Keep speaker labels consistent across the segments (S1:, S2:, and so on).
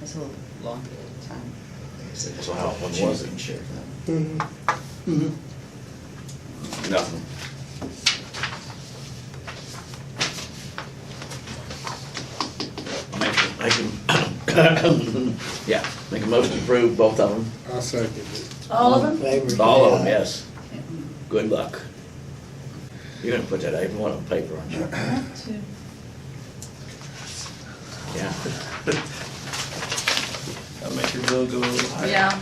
S1: It's a little long period of time. Like I said,
S2: So how- when was it?
S1: choosing sheriff, uh,
S2: Mm-hmm. Nothing. Make, make, yeah, make a motion to approve both of them,
S3: I'll second it.
S4: All of them?
S5: Favor,
S2: all of them,
S5: say aye.
S2: yes. Good luck. You're gonna put that every one on paper, aren't you?
S4: Two.
S2: Yeah.
S6: That'll make your bill go a little higher.
S4: Yeah.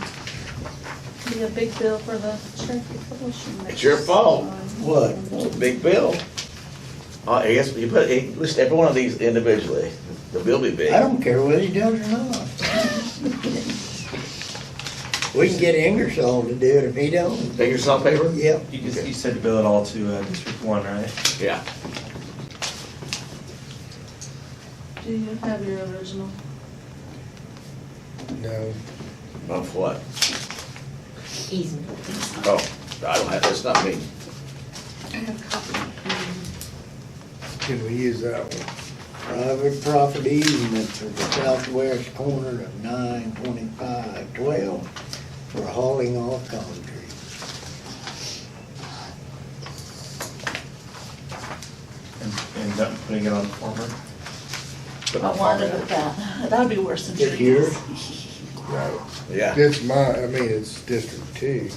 S4: Be a big bill for the Cherokee Publishing. Um,
S2: It's your fault.
S5: What?
S2: Well, Big bill. Uh, I guess you put, eh, list every one of these individually, the bill be big.
S5: I don't care whether he does or not. We can get Ingersoll to do it if he don't.
S2: Fingers on paper?
S5: Yep,
S6: You just, you said to bill it all to uh, District One, right?
S2: Yeah.
S4: Do you have your original?
S3: No,
S2: Of what?
S7: Easement.
S2: Oh, I don't have, it's not me.
S1: I have a copy.
S3: can we use that one?
S5: private property easement for the southwest corner of nine twenty-five twelve for hauling off concrete.
S6: And, and not putting it on the former.
S4: I wanted it that. That'd be worse than
S5: This year?
S4: Cherokee.
S3: Right.
S2: Yeah.
S3: It's my, I mean, it's District Two.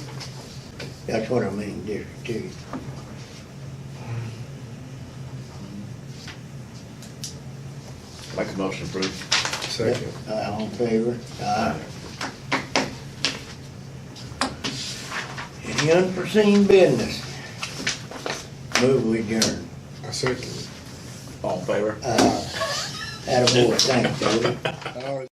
S5: That's what I mean, District Two.
S2: Make a motion approved.
S3: Second.
S5: Uh, All in favor? Aye. Any unforeseen business? Move we adjourn.
S3: I second it.
S2: All in favor?
S5: Uh, Attaboy, thanks, David.
S3: Oh,